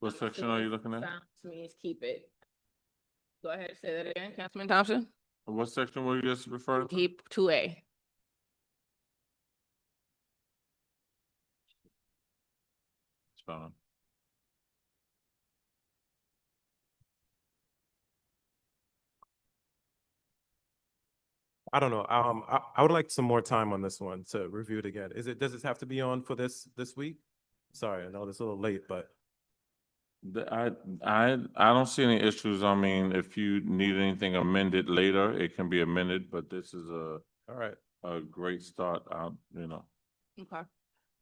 What section are you looking at? Silence means keep it. Go ahead, say that again, Councilman Thompson. What section were you just referring to? Keep two A. It's fine. I don't know. Um, I, I would like some more time on this one to review it again. Is it, does this have to be on for this, this week? Sorry, I know it's a little late, but The- I, I, I don't see any issues. I mean, if you need anything amended later, it can be amended, but this is a, all right. a great start out, you know. Okay.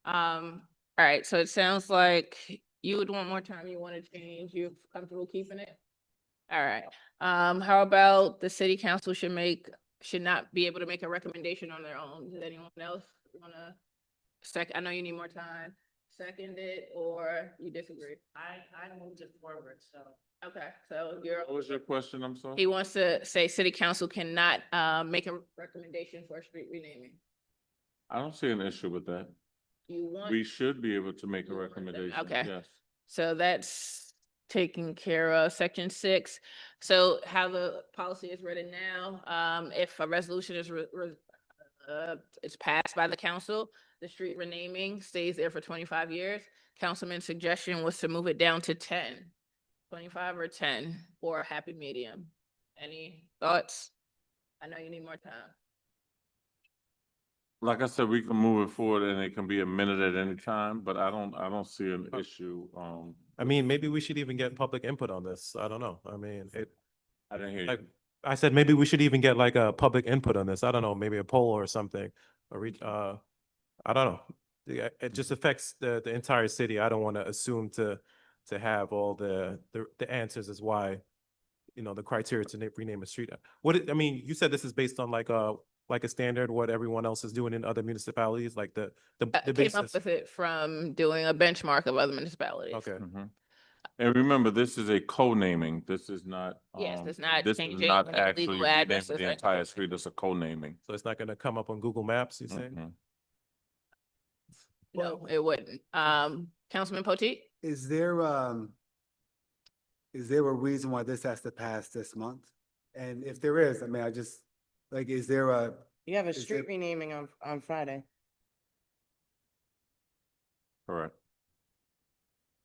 Um, all right, so it sounds like you would want more time, you want to change, you're comfortable keeping it? All right, um, how about the city council should make, should not be able to make a recommendation on their own? Does anyone else wanna sec, I know you need more time, second it, or you disagree? I, I moved it forward, so. Okay, so you're. What was your question? I'm He sorry. wants to say city council cannot, uh, make a recommendation for a street renaming. I don't see an issue with that. You want. We should be able to make a You want them- recommendation, okay. yes. So that's taken care of, section six. So how the policy is written now, um, if a resolution is re- re- uh, it's passed by the council, the street renaming stays there for twenty-five years. Councilman's suggestion was to move it down to 10, 25 or ten, or a happy medium. Any thoughts? I know you need more time. Like I said, we can move it forward and it can be amended at any time, but I don't, I don't see an Oh. issue, um, I mean, maybe we should even get public input on this. I don't know. I mean, it, I didn't hear like, you. I said maybe we should even get like a public input on this. I don't know, maybe a poll or something, or reach, uh, I don't know. Yeah, it just affects the, the entire city. I don't want to assume to, to have all the, the, the answers as why, you know, the criteria to na- rename a street. uh, What, it- I mean, you said this is based on like a, like a standard, what everyone else is doing in other municipalities, like the, the, Uh, the came up basis. with it from doing a benchmark of other municipalities. Okay, Mhm. And remember, this is a co-naming. This is not. Yes, um, it's not This changing is not the actually legal renaming addresses the or entire anything. street. It's a co-naming. so it's not going to come up on Google Maps, you say? Mhm. No, it wouldn't. Um, Councilman Potteet? Is there, um, is there a reason why this has to pass this month? And if there is, I mean, I just, like, is there a, You have a Is it- street renaming on, on Friday. Correct.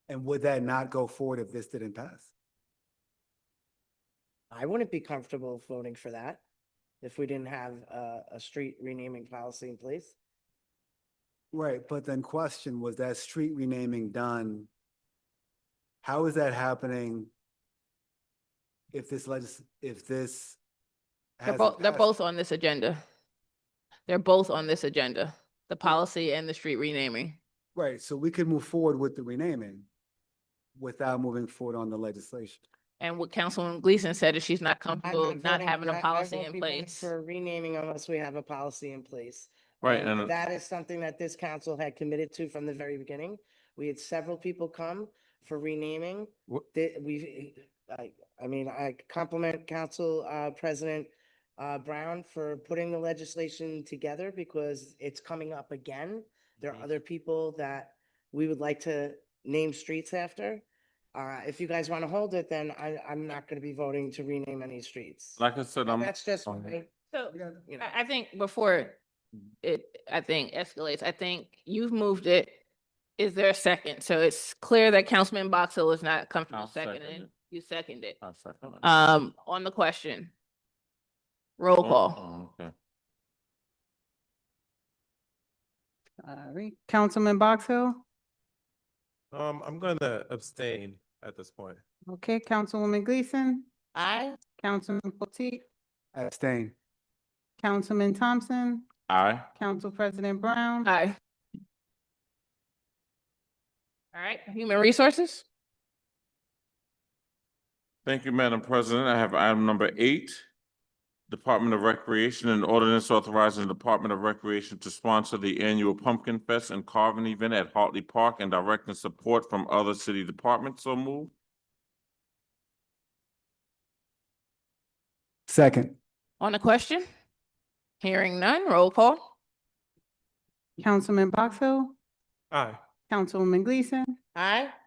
and would that not go forward if this didn't pass? I wouldn't be comfortable voting for that if we didn't have a, a street renaming policy in place. Right, but then question, was that street renaming done? How is that happening? If this legis, if this. They're hasn't both, they're passed? both on this agenda. They're both on this agenda, the policy and the street renaming. Right, so we could move forward with the renaming without moving forward on the legislation. And what Councilwoman Gleason said is she's not I'm comfortable not voting- having I- a I policy won't in be voting place. For renaming unless we have a policy in place. Right, And and, uh, That is something that this council had committed to from the very beginning. We had several people come for renaming. Wha- They- we, I, I mean, I compliment Council, uh, President, uh, Brown for putting the legislation together because it's coming up again. There Mm-hmm. are other people that we would like to name streets after. Uh, if you guys want to hold it, then I, I'm not going to be voting to rename any streets. like I said, I'm, That's just, on my, So We got- you know. I, I think before it, I think escalates, I think you've moved it. Is there a second? So it's clear that Councilman Boxill is not comfortable I'll second seconding. it. You seconded. I second it. Um, on the question. Roll Oh, call. oh, Okay. Sorry. Councilman Box Hill? Um, I'm going to abstain at this point. Okay, Councilwoman Gleason, I, Councilman Potteet, Abstain. Councilman Thompson, Aye. Council President Brown. Aye. All right, human resources? Thank you, Madam President. I have item number eight. Department of Recreation and ordinance authorizing the Department of Recreation to sponsor the annual Pumpkin Fest and Carving Event at Hartley Park and directing support from other city departments. So move. Second. On the question? Hearing none, roll call. Councilman Box Hill, Aye. Councilwoman Gleason, I.